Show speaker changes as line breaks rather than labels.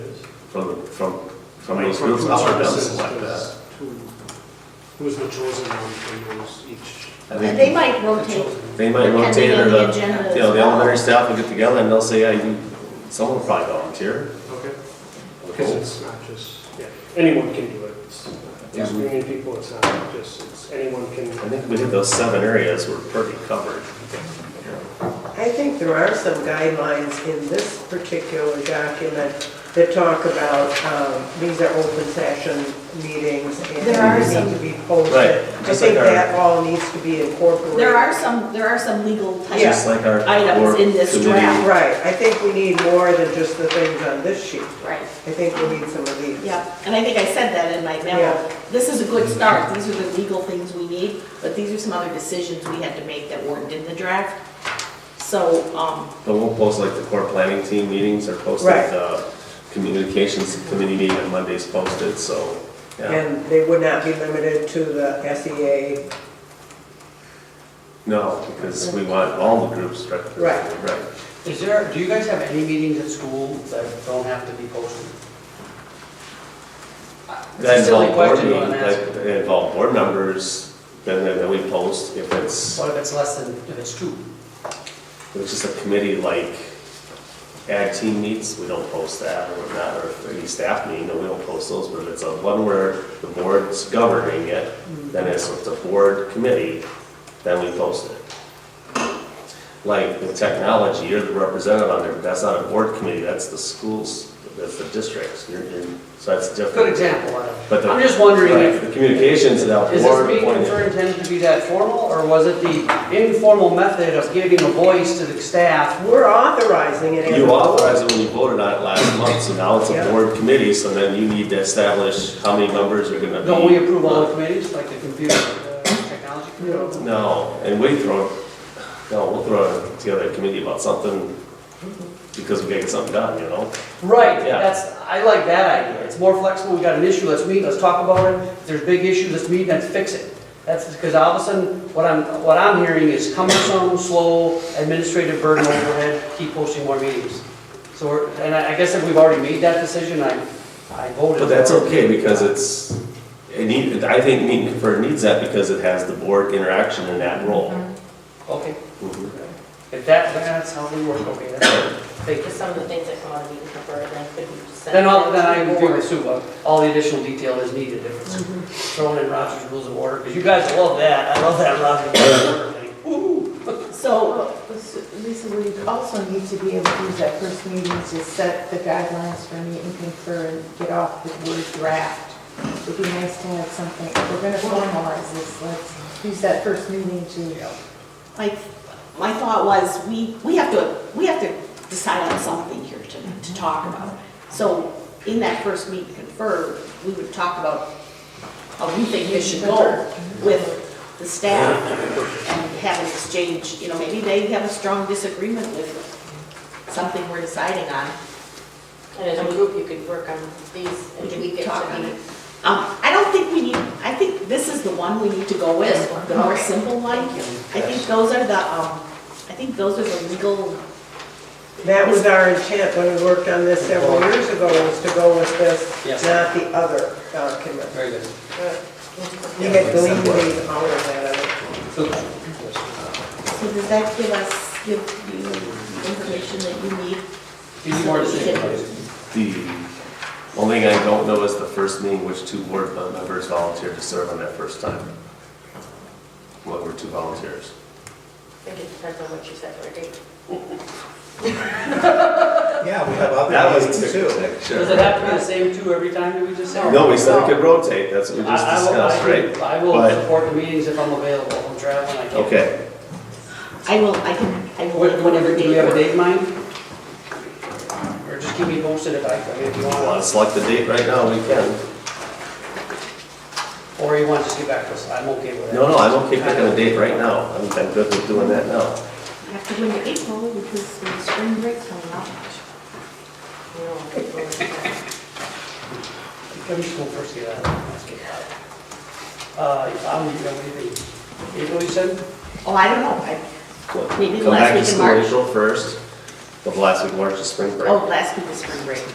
from, the- from, from
Like,
those
from
groups.
food
up or down,
services
something like
to-
that.
to- Who's the chosen one from those each?
I think
They might
the
rotate.
chosen-
They might
Depending
rotate or
on
the,
the agenda as
you know, the
well.
elementary staff will get together and they'll say, yeah, you, someone will probably volunteer.
Okay,
We'll
because
go.
it's not just, yeah, anyone can do it. It's not just
Mhm.
many people, it's not just, it's anyone can.
I think we did those seven areas were pretty covered.
I think there are some guidelines in this particular document that talk about, um, these are open session meetings and
There are
they need
some-
to be posted.
Right,
I
just like
think
our-
that all needs to be incorporated.
There are some, there are some legal
Just
types.
like our.
Items
work
in this
committee.
draft.
Right, I think we need more than just the things on this sheet.
Right,
I think we need some of these.
yeah, and I think I said that in my
Yeah.
memo. This is a good start, these are the legal things we need, but these are some other decisions we had to make that weren't in the draft. So, um,
But we'll post like the core planning team meetings are posted,
Right.
the communications committee meeting on Monday's posted, so, yeah.
And they would not be limited to the E SEA.
No, because we want all the groups represented.
Right.
Right.
Is there, do you guys have any meetings at school that don't have to be posted? Uh, It's
That
a silly
involve board
question, but I'm
meetings,
asking.
that that involve board members, then, then we post if it's,
What if it's less than, if it's two?
if it's just a committee like ag team meets, we don't post that or whatnot, or any staff meeting, no, we don't post those, but if it's a one where the board's governing it, then it's with the board committee, then we post it. Like with technology, you're the representative on there, but that's not a board committee, that's the schools, that's the districts, you're, you're, so that's different.
Good example, I
But
don't-
the-
I'm just wondering
Right,
if,
the communications that
is
board
this meeting
appointed.
for intended to be that formal, or was it the informal method of giving a voice to the staff?
We're authorizing it. as a
You
board.
authorized it when you voted on it last month, so now it's a
Yeah.
board committee, so then you need to establish how many members are gonna be.
Don't we approve all the committees, like the computer, uh, technology committee?
No, and we throw, no, we'll throw together a committee about something, because we gotta get something done, you know?
Right,
Yeah.
that's, I like that idea. It's more flexible, we got an issue, let's meet, let's talk about it. If there's big issues, let's meet, let's fix it. That's, because all of a sudden, what I'm, what I'm hearing is cumbersome, slow, administrative burden overhead, keep posting more meetings. So we're, and I I guess if we've already made that decision, I, I voted.
But that's
for it.
okay, because it's, it need, I think Meet and Confer needs that because it has the board interaction in that role.
Okay,
Mhm.
if that, that's how we work, okay, that's, it. thank you.
Because some of the things that come out of meeting preferred, and I couldn't send.
Then all,
them to
then I
the
agree
board.
with Sue, uh, all the additional detail is needed if it's thrown in Roger's Rules of Order, because you guys love that, I love that Roger's Rules of Order thing. Woo!
so,
Well, s- Oh, Lisa, we also need to be able to use that first meeting to set the guidelines for meet and confer and get off the word draft. It'd be nice to have something, if we're gonna formalize this, let's use that first meeting to
like, my thought was, we, we have to, we have to decide on something here to, to talk about. So, in that first meet and confer, we would talk about how we think this should go with the staff and have an exchange, you know, maybe they have a strong disagreement with something we're deciding on.
And as a group, you could work on these
We
and
can
tweak it
talk
to
on
be.
it. Um, I don't think we need, I think this is the one we need to go with, the more simple one. I think those are the, um, I think those are the legal,
That was our intent when we worked on this several years ago, was to go with
Yes.
this, not the other document.
Very good.
We had deleted all of that other.
So,
so does that give us, give you the information that you need?
you need more decision.
The only thing I don't know is the first meeting, which two board members volunteered to serve on that first time. What were two volunteers?
I think it depends on what you said for a date.
Yeah, we have
That was two.
Does it have to be the same two every time that we just say?
No, we said we could rotate, that's what we
I-
just
I will- I
discussed, right?
can- I will
But-
support the meetings if I'm available, if I'm traveling, I can't.
Okay,
I will, I can, I will,
What-
whatever
Do we have a
date.
date in mind? Or just keep me posted if I, I mean, if you want.
want to select the date right now, we can.
Or you want to just get back to us, I'm okay with that.
No, no, I'm okay picking a date right now, I'm, I'm good with doing that now.
We Have to go into April because the spring break's coming up.
You know, people are like,
Let me just go first, get out. Let's get out. Uh, I'm, you know, maybe, April, you said?
Oh, I don't know, I,
What,
Maybe the
Come
last
back to
week in
school
March.
April first, the last week of March is spring break.
oh, last week was spring break.